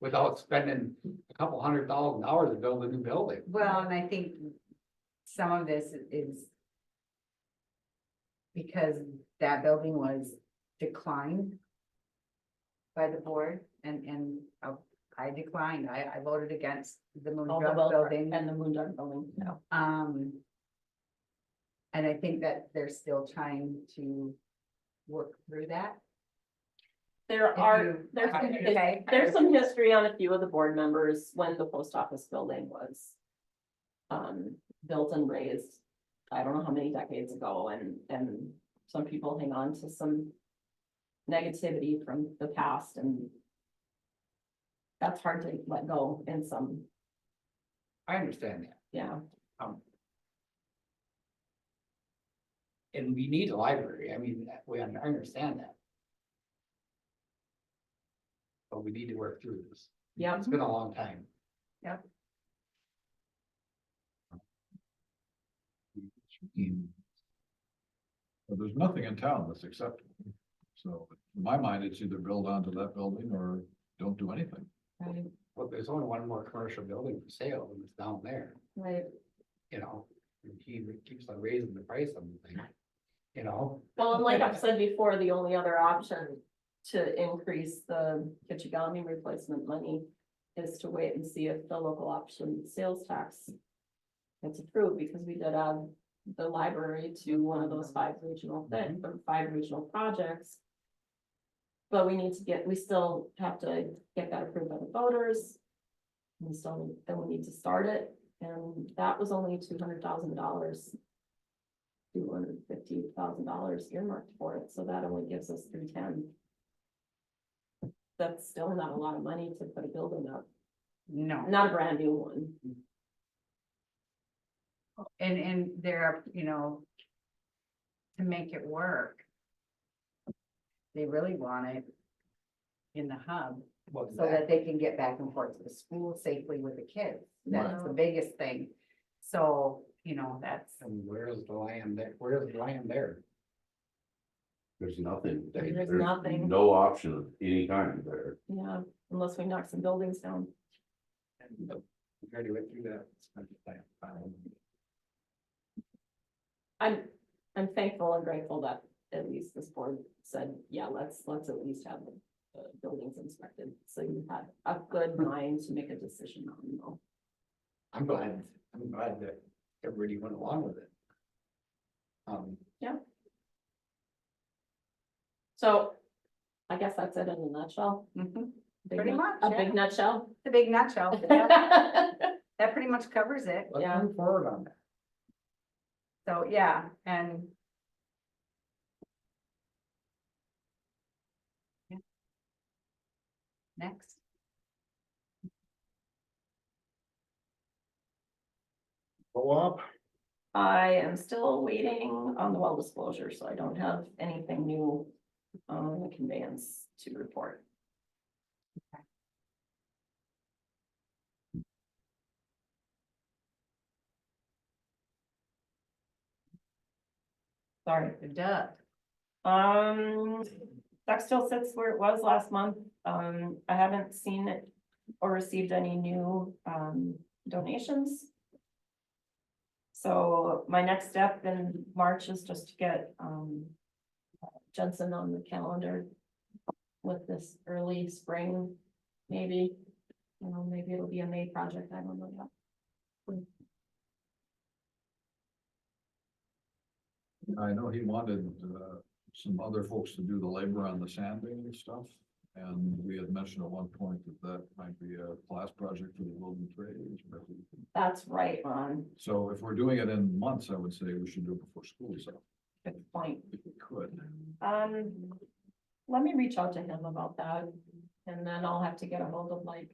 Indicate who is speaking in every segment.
Speaker 1: without spending a couple hundred thousand dollars to build a new building.
Speaker 2: Well, and I think some of this is because that building was declined by the board and, and uh, I declined. I, I voted against the Moon
Speaker 3: All the
Speaker 2: Dog
Speaker 3: well
Speaker 2: building.
Speaker 3: and the moon dog building, no.
Speaker 2: Um. And I think that they're still trying to work through that.
Speaker 3: There
Speaker 2: If
Speaker 3: are,
Speaker 2: you-
Speaker 3: there's, some his-
Speaker 2: Okay.
Speaker 3: there's some history on a few of the board members when the post office building was. Um, built and raised, I don't know how many decades ago, and, and some people hang on to some. Negativity from the past and. That's hard to let go in some,
Speaker 1: I understand that.
Speaker 3: yeah,
Speaker 1: And we need a library. I mean, that- we, I understand that. But we need to work through this.
Speaker 3: yeah,
Speaker 1: It's been a long time.
Speaker 2: Yep.
Speaker 4: But there's nothing in town that's acceptable. So in my mind, it's either build onto that building or don't do anything.
Speaker 3: right,
Speaker 1: Well, there's only one more commercial building for sale and it's down there,
Speaker 3: right.
Speaker 1: you know? And he keeps on raising the price on the thing, you know?
Speaker 3: Well, and like I've said before, the only other option to increase the Kichigami replacement money is to wait and see if the local option sales tax gets approved, because we did add the library to one of those five regional thing, or five regional projects. But we need to get, we still have to get that approved by the voters. We still, then we need to start it, and that was only two hundred thousand dollars two hundred fifty thousand dollars earmarked for it, so that only gives us three ten. That's still not a lot of money to put a building up,
Speaker 2: No,
Speaker 3: not a brand new one,
Speaker 2: and, and there are, you know, to make it work. They really want it in the hub
Speaker 1: Well,
Speaker 2: so that they can get back and forth to the school safely with the kids. That's the
Speaker 3: Right.
Speaker 2: biggest thing. So, you know, that's,
Speaker 1: And where's the land that, where's the land there?
Speaker 5: There's nothing. They-
Speaker 3: There's nothing.
Speaker 5: No option of any kind there.
Speaker 3: yeah, unless we knock some buildings down.
Speaker 1: And uh, we already went through that. It's not the plan. Um,
Speaker 3: I'm, I'm thankful and grateful that at least this board said, yeah, let's, let's at least have the the buildings inspected, so you had a
Speaker 2: Hmm.
Speaker 3: good mind to make a decision on, you know.
Speaker 1: I'm glad, I'm glad that everybody went along with it. Um,
Speaker 3: So, I guess that's it in a nutshell.
Speaker 2: mhm,
Speaker 3: Big
Speaker 2: Pretty
Speaker 3: nut-
Speaker 2: much,
Speaker 3: A big nutshell.
Speaker 2: the big nutshell. That that pretty much covers it.
Speaker 1: let's
Speaker 3: Yeah.
Speaker 1: move forward on that.
Speaker 2: So, yeah, and. Yeah. Next.
Speaker 4: Co-op?
Speaker 3: I am still waiting on the well disclosure, so I don't have anything new on the conveyance to report. Sorry.
Speaker 2: Duh.
Speaker 3: Um, that still sits where it was last month. Um, I haven't seen it or received any new, um, donations. So my next step in March is just to get, um, Jensen on the calendar with this early spring, maybe. You know, maybe it'll be a May project, I don't know yet.
Speaker 4: I know he wanted uh, some other folks to do the labor on the sanding and stuff. And we had mentioned at one point that that might be a class project for the building trades. but-
Speaker 3: That's right, Ron,
Speaker 4: So if we're doing it in months, I would say we should do it before school is out,
Speaker 3: good point.
Speaker 4: if we could.
Speaker 3: Um, let me reach out to him about that, and then I'll have to get a hold of like.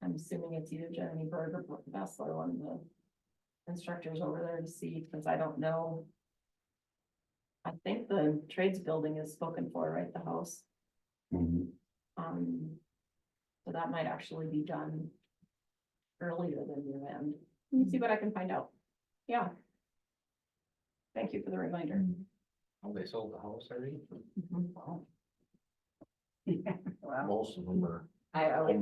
Speaker 3: I'm assuming it's either Jeremy Berg or Brooke Bessler, one of the instructors over there to see, because I don't know. I think the trades building is spoken for, right, the house, um, so that might actually be done. Earlier than year end, let me see what I can find out, yeah. Thank you for the reminder.
Speaker 1: Oh, they sold the house already?
Speaker 3: Mhm.
Speaker 2: Well,
Speaker 4: Most of them are
Speaker 2: I always